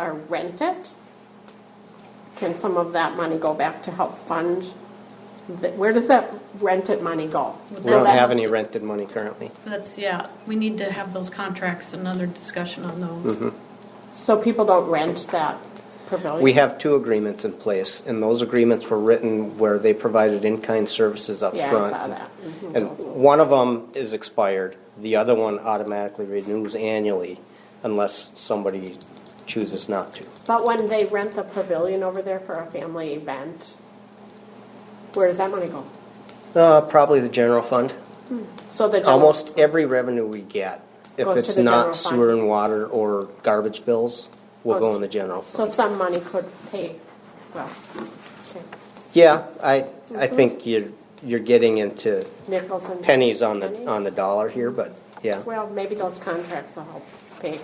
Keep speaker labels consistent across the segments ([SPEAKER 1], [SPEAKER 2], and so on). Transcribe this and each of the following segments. [SPEAKER 1] or rent it, can some of that money go back to help fund? the- Where does that rented money go?
[SPEAKER 2] We
[SPEAKER 1] So
[SPEAKER 2] don't
[SPEAKER 1] that-
[SPEAKER 2] have any rented money currently.
[SPEAKER 3] That's, yeah, we need to have those contracts, another discussion on those.
[SPEAKER 1] So people don't rent that pavilion?
[SPEAKER 2] We have two agreements in place, and those agreements were written where they provided in-kind services up
[SPEAKER 1] Yeah, I
[SPEAKER 2] front.
[SPEAKER 1] saw that.
[SPEAKER 2] And one of them is expired, the other one automatically renews annually unless somebody chooses not to.
[SPEAKER 1] But when they rent the pavilion over there for a family event, where does that money go?
[SPEAKER 2] Uh, probably the general fund.
[SPEAKER 1] So the general-
[SPEAKER 2] Almost every revenue we get, if
[SPEAKER 1] Goes to
[SPEAKER 2] it's
[SPEAKER 1] the
[SPEAKER 2] not
[SPEAKER 1] general fund.
[SPEAKER 2] sewer and water or garbage bills, will
[SPEAKER 1] Goes
[SPEAKER 2] go
[SPEAKER 1] to-
[SPEAKER 2] in the general
[SPEAKER 1] So
[SPEAKER 2] fund.
[SPEAKER 1] some money could pay, well, okay.
[SPEAKER 2] Yeah, I, I think you're, you're getting into
[SPEAKER 1] nickels and.
[SPEAKER 2] pennies on the,
[SPEAKER 1] pennies?
[SPEAKER 2] on the dollar here, but yeah.
[SPEAKER 1] Well, maybe those contracts will help pay.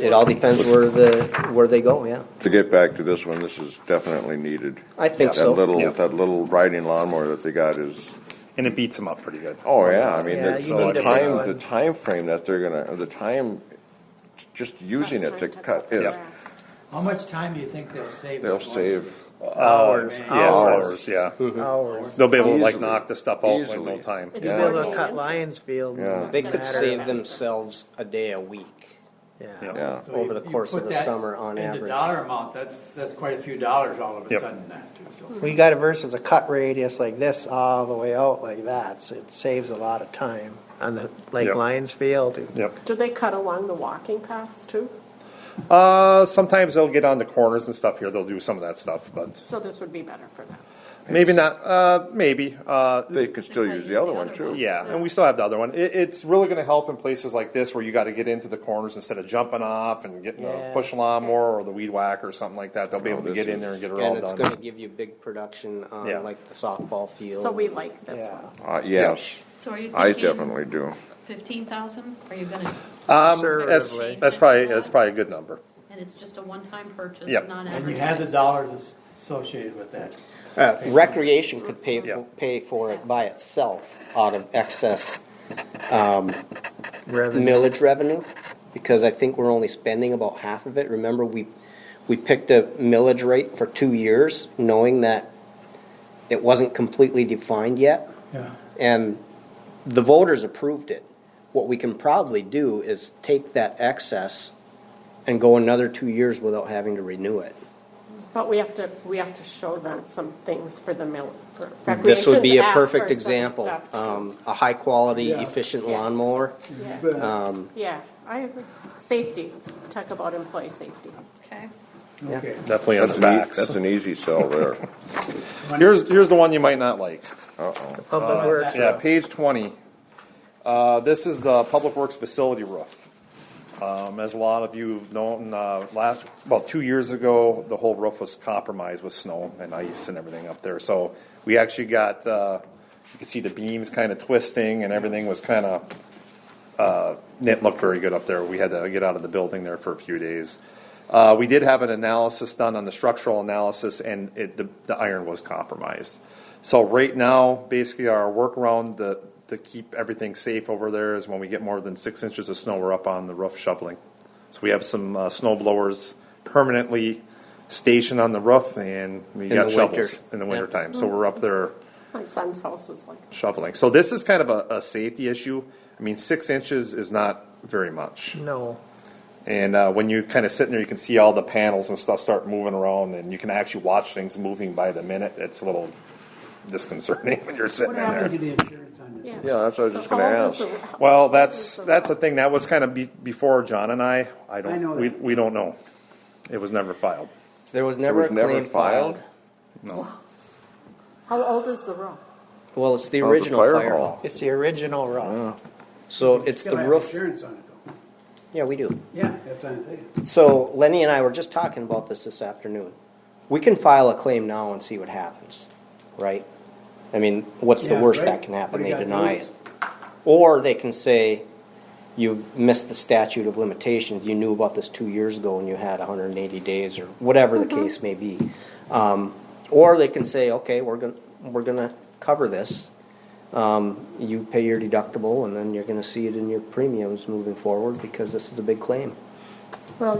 [SPEAKER 2] It all depends where the, where they go, yeah.
[SPEAKER 4] To get back to this one, this is definitely needed.
[SPEAKER 2] I think so.
[SPEAKER 4] That little,
[SPEAKER 5] Yeah.
[SPEAKER 4] that little riding lawnmower that they got is,
[SPEAKER 5] And it beats them up pretty good.
[SPEAKER 4] oh yeah, I mean,
[SPEAKER 2] Yeah,
[SPEAKER 4] the,
[SPEAKER 2] you
[SPEAKER 4] the
[SPEAKER 2] need a big
[SPEAKER 4] time,
[SPEAKER 2] one.
[SPEAKER 4] the time frame that they're gonna, the time, just using it to cut it,
[SPEAKER 6] How much time do you think they'll save?
[SPEAKER 4] they'll
[SPEAKER 6] by going
[SPEAKER 4] save
[SPEAKER 5] Hours,
[SPEAKER 6] Man.
[SPEAKER 5] yes,
[SPEAKER 4] Hours. Mm-hmm.
[SPEAKER 5] hours, yeah.
[SPEAKER 2] Hours.
[SPEAKER 5] They'll be able to like
[SPEAKER 4] Easily.
[SPEAKER 5] knock the stuff out in no
[SPEAKER 4] Easily.
[SPEAKER 5] time.
[SPEAKER 1] It's
[SPEAKER 7] He's
[SPEAKER 4] Yeah.
[SPEAKER 7] been able
[SPEAKER 1] Yeah.
[SPEAKER 7] to cut Lions Field.
[SPEAKER 4] Yeah.
[SPEAKER 2] They could
[SPEAKER 1] Matter.
[SPEAKER 2] save themselves a day a week.
[SPEAKER 7] Yeah.
[SPEAKER 5] Yeah.
[SPEAKER 4] yeah.
[SPEAKER 6] So
[SPEAKER 2] over
[SPEAKER 6] you-
[SPEAKER 2] the
[SPEAKER 6] you
[SPEAKER 2] course
[SPEAKER 6] put
[SPEAKER 2] of the
[SPEAKER 6] that
[SPEAKER 2] summer on
[SPEAKER 6] into
[SPEAKER 2] average.
[SPEAKER 6] dollar amount, that's, that's quite a few dollars all of a
[SPEAKER 5] Yep.
[SPEAKER 6] sudden that too, so.
[SPEAKER 7] We got it versus a cut radius like this all the way out like that, so it saves a lot of time on the Lake
[SPEAKER 5] Yep.
[SPEAKER 7] Lions Field.
[SPEAKER 5] Yep.
[SPEAKER 1] Do they cut along the walking paths too?
[SPEAKER 5] Uh, sometimes they'll get on the corners and stuff here. They'll do some of that stuff, but
[SPEAKER 1] So this would be better for them.
[SPEAKER 5] maybe not. Uh, maybe. Uh,
[SPEAKER 4] They can still use the other one too.
[SPEAKER 5] yeah, and we still have the other one. It, it's really going to help in places like this where you got to get into the corners instead of jumping off and getting a
[SPEAKER 7] Yes.
[SPEAKER 5] push lawnmower or the weed whacker or something like that. They'll be able to
[SPEAKER 4] Oh, this
[SPEAKER 5] get in
[SPEAKER 4] is-
[SPEAKER 5] there and get it all
[SPEAKER 2] And it's
[SPEAKER 5] done.
[SPEAKER 2] gonna give you big production
[SPEAKER 5] Yeah.
[SPEAKER 2] on like the softball field.
[SPEAKER 1] So we like this
[SPEAKER 7] Yeah.
[SPEAKER 1] one.
[SPEAKER 4] Uh, yes,
[SPEAKER 3] So are you
[SPEAKER 4] I
[SPEAKER 3] thinking?
[SPEAKER 4] definitely do.
[SPEAKER 3] Fifteen thousand, are you gonna,
[SPEAKER 5] um, that's,
[SPEAKER 7] Conservatively.
[SPEAKER 5] that's probably that's probably a good number.
[SPEAKER 3] and it's just a one-time purchase,
[SPEAKER 5] Yep.
[SPEAKER 3] not
[SPEAKER 6] And you had the
[SPEAKER 3] advertised?
[SPEAKER 6] dollars as- associated with that.
[SPEAKER 2] Uh, recreation could pay,
[SPEAKER 5] Yeah.
[SPEAKER 2] for pay for it by itself out of excess
[SPEAKER 7] Revenue.
[SPEAKER 2] millage revenue, because I think we're only spending about half of it. Remember, we, we picked a millage rate for two years, knowing that it wasn't completely defined yet.
[SPEAKER 6] Yeah.
[SPEAKER 2] and the voters approved it. What we can probably do is take that excess and go another two years without having to renew it.
[SPEAKER 1] But we have to, we have to show them some things for the mill, for
[SPEAKER 2] This would
[SPEAKER 1] recreation's
[SPEAKER 2] be a
[SPEAKER 1] asked for
[SPEAKER 2] perfect
[SPEAKER 1] some
[SPEAKER 2] example,
[SPEAKER 1] stuff, too.
[SPEAKER 2] um, a high-quality, efficient lawnmower. Um,
[SPEAKER 1] Yeah, I agree. Safety, talk about employee safety.
[SPEAKER 3] Okay.
[SPEAKER 6] Okay.
[SPEAKER 5] Definitely on
[SPEAKER 4] That's
[SPEAKER 5] the
[SPEAKER 4] an, ea-
[SPEAKER 5] backs.
[SPEAKER 4] that's an easy sell there.
[SPEAKER 5] Here's here's the one you might not like.
[SPEAKER 4] Uh-oh.
[SPEAKER 7] Public Works.
[SPEAKER 5] Uh, Yeah, page twenty. Uh, this is the Public Works facility roof. Um, as a lot of you have known, uh, last, about two years ago, the whole roof was compromised with snow and ice and everything up there. So we actually got, uh, you can see the beams kind of twisting and everything was kind of, uh, it looked very good up there. We had to get out of the building there for a few days. Uh, we did have an analysis done on the structural analysis, and it, the, the iron was compromised. So right now, basically, our workaround to, to keep everything safe over there is when we get more than six inches of snow, we're up on the roof shoveling. So we have some uh, snow blowers permanently stationed on the roof, and we got
[SPEAKER 2] the
[SPEAKER 5] shovels
[SPEAKER 2] winter.
[SPEAKER 5] in the
[SPEAKER 2] Yeah.
[SPEAKER 5] wintertime. So we're up there
[SPEAKER 1] My son's house was like,
[SPEAKER 5] shoveling. So this is kind of a, a safety issue. I mean, six inches is not very much.
[SPEAKER 7] No.
[SPEAKER 5] And uh, when you kind of sit in there, you can see all the panels and stuff start moving around, and you can actually watch things moving by the minute. It's a little disconcerting when you're sitting
[SPEAKER 6] What
[SPEAKER 5] in there.
[SPEAKER 6] happened to the insurance on this?
[SPEAKER 1] yeah.
[SPEAKER 4] Yeah, that's what I was
[SPEAKER 1] So
[SPEAKER 4] just gonna
[SPEAKER 1] how old is
[SPEAKER 4] ask.
[SPEAKER 1] the- how
[SPEAKER 5] Well,
[SPEAKER 1] old
[SPEAKER 5] that's
[SPEAKER 1] is the-
[SPEAKER 5] that's the thing. That was kind of be, before John and I. I don't.
[SPEAKER 6] I know
[SPEAKER 5] we
[SPEAKER 6] that.
[SPEAKER 5] we don't know. It was never filed.
[SPEAKER 2] There was never a
[SPEAKER 4] was never
[SPEAKER 2] claim
[SPEAKER 4] filed?
[SPEAKER 2] filed.
[SPEAKER 5] No.
[SPEAKER 1] How old is the room?
[SPEAKER 2] Well, it's the
[SPEAKER 4] Oh, it's a
[SPEAKER 2] original
[SPEAKER 4] fire
[SPEAKER 2] fire
[SPEAKER 4] hall.
[SPEAKER 2] hall.
[SPEAKER 7] It's the original rough.
[SPEAKER 2] So it's
[SPEAKER 6] Still
[SPEAKER 2] the
[SPEAKER 6] have
[SPEAKER 2] roof,
[SPEAKER 6] insurance on it though.
[SPEAKER 2] yeah, we do.
[SPEAKER 6] Yeah, that's what I'm saying.
[SPEAKER 2] So Lenny and I were just talking about this this afternoon. We can file a claim now and see what happens, right? I mean, what's the
[SPEAKER 6] Yeah,
[SPEAKER 2] worst
[SPEAKER 6] right.
[SPEAKER 2] that can happen?
[SPEAKER 6] What do
[SPEAKER 2] They
[SPEAKER 6] you gotta
[SPEAKER 2] deny
[SPEAKER 6] do?
[SPEAKER 2] it. Or they can say, you've missed the statute of limitations. You knew about this two years ago and you had 180 days or whatever
[SPEAKER 6] Mm-hmm.
[SPEAKER 2] the case may be. Um, or they can say, okay, we're going to we're gonna cover this. Um, you pay your deductible and then you're going to see it in your premiums moving forward because this is a big claim.